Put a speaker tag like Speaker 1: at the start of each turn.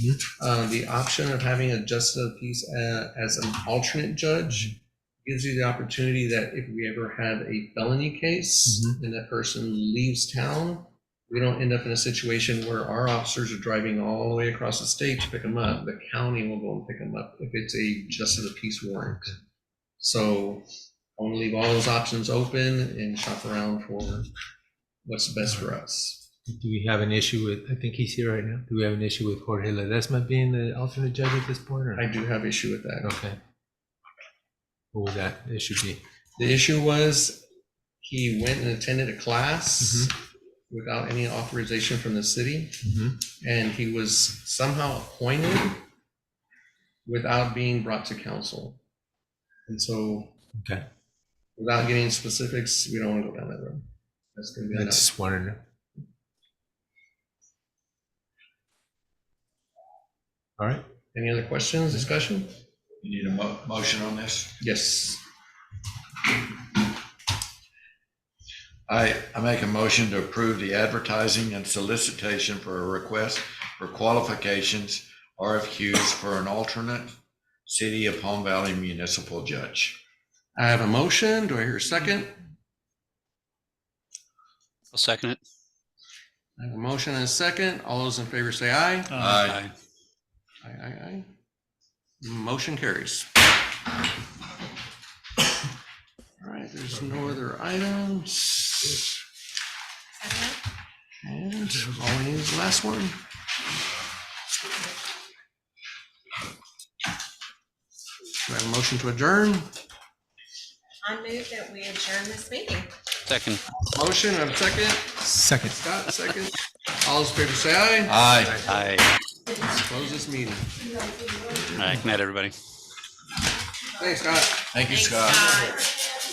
Speaker 1: Uh, the option of having a justice of the peace uh, as an alternate judge gives you the opportunity that if we ever have a felony case and that person leaves town, we don't end up in a situation where our officers are driving all the way across the state to pick them up. The county will go and pick them up if it's a justice of the peace warrant. So I want to leave all those options open and shop around for what's best for us.
Speaker 2: Do we have an issue with, I think he's here right now, do we have an issue with Jorge Ledesma being the alternate judge at this point, or?
Speaker 1: I do have issue with that.
Speaker 2: Okay. What would that issue be?
Speaker 1: The issue was he went and attended a class without any authorization from the city,
Speaker 2: Mhm.
Speaker 1: and he was somehow appointed without being brought to council. And so,
Speaker 2: Okay,
Speaker 1: without getting specifics, we don't want to go down that road. That's going to be
Speaker 2: I
Speaker 1: enough.
Speaker 2: just wanted to. know. All right,
Speaker 1: Any other questions, discussion?
Speaker 3: You need a mo- motion on this?
Speaker 1: Yes.
Speaker 3: I, I make a motion to approve the advertising and solicitation for a request for qualifications, RFQs for an alternate City of Palm Valley Municipal Judge.
Speaker 1: I have a motion. Do I hear a second?
Speaker 4: I'll second it.
Speaker 1: I have a motion and a second. All those in favor say aye.
Speaker 3: Aye.
Speaker 1: Aye, aye, aye. Motion carries. All right, there's no other items. And all we need is the last one. Do I have a motion to adjourn?
Speaker 5: I move that we adjourn this meeting.
Speaker 4: Second.
Speaker 1: Motion, and a second.
Speaker 2: second.
Speaker 1: Scott, second. All those in favor say aye.
Speaker 3: Aye.
Speaker 4: Aye.
Speaker 1: Let's Close this meeting.
Speaker 4: All right. Good night, everybody.
Speaker 1: Thanks, Scott.
Speaker 3: Thank you,
Speaker 5: Thanks,
Speaker 3: Scott.
Speaker 5: Scott.